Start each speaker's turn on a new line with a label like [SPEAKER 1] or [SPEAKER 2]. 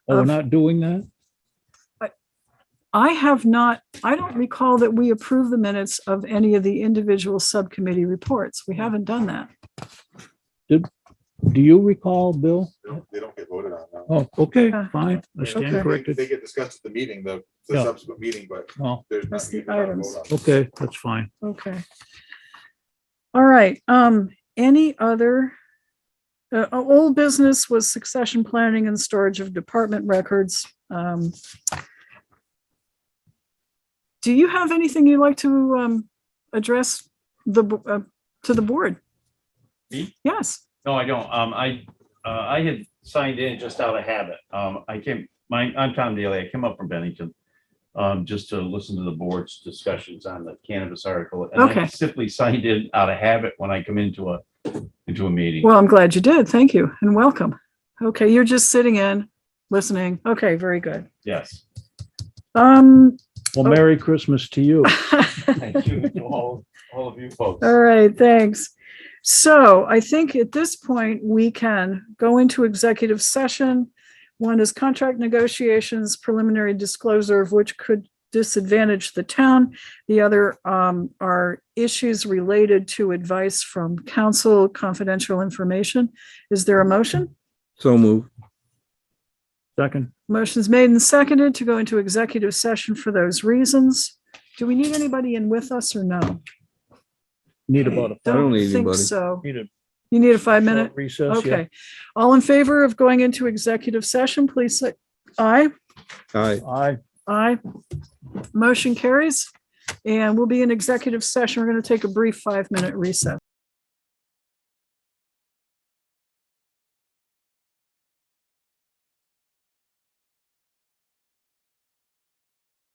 [SPEAKER 1] Oh, we're
[SPEAKER 2] of-
[SPEAKER 1] not doing that?
[SPEAKER 2] I have not, I don't recall that we approve the minutes of any of the individual subcommittee reports. We haven't done that.
[SPEAKER 1] Do you recall, Bill?
[SPEAKER 3] No, They don't get voted on. no.
[SPEAKER 1] Oh, okay,
[SPEAKER 2] Uh,
[SPEAKER 1] fine. I stand
[SPEAKER 2] okay.
[SPEAKER 1] corrected.
[SPEAKER 3] They get discussed at the meeting, the, the
[SPEAKER 1] Yeah.
[SPEAKER 3] subsequent meeting, but
[SPEAKER 1] Well,
[SPEAKER 3] there's not.
[SPEAKER 2] That's the
[SPEAKER 3] you cannot vote
[SPEAKER 2] items.
[SPEAKER 3] on it.
[SPEAKER 1] okay, that's fine.
[SPEAKER 2] Okay. All right, um, any other? Uh, o- old business was succession planning and storage of department records. Um. Do you have anything you'd like to, um, address the, bo- uh, to the board?
[SPEAKER 4] Me?
[SPEAKER 2] Yes,
[SPEAKER 4] No, I don't. Um, I, uh, I had signed in just out of habit. Um, I came, my, I'm Tom Daly. I came up from Bennington. Um, just to listen to the board's discussions on the cannabis article. and I
[SPEAKER 2] Okay.
[SPEAKER 4] Simply signed in out of habit when I come into a, into a meeting.
[SPEAKER 2] well, I'm glad you did. Thank you and welcome. Okay, you're just sitting in, listening. Okay, very good.
[SPEAKER 4] Yes.
[SPEAKER 2] Um,
[SPEAKER 1] Well,
[SPEAKER 2] Oh.
[SPEAKER 1] Merry Christmas to you.
[SPEAKER 4] Thank you to all, all of you folks.
[SPEAKER 2] All right, thanks. So I think at this point, we can go into executive session. One is contract negotiations, preliminary disclosure of which could disadvantage the town. The other um, are issues related to advice from council, confidential information. Is there a motion?
[SPEAKER 5] So move.
[SPEAKER 1] Second,
[SPEAKER 2] Motion's made and seconded to go into executive session for those reasons. Do we need anybody in with us or no?
[SPEAKER 1] need about a.
[SPEAKER 5] I don't
[SPEAKER 2] Don't
[SPEAKER 5] need
[SPEAKER 2] think
[SPEAKER 5] anybody.
[SPEAKER 2] so.
[SPEAKER 1] need a
[SPEAKER 2] You need a five-minute?
[SPEAKER 1] short Recess, yeah.
[SPEAKER 2] Okay. All in favor of going into executive session, please say aye.
[SPEAKER 5] Aye.
[SPEAKER 1] Aye.
[SPEAKER 2] Aye. Motion carries. And we'll be in executive session. We're going to take a brief five-minute recess.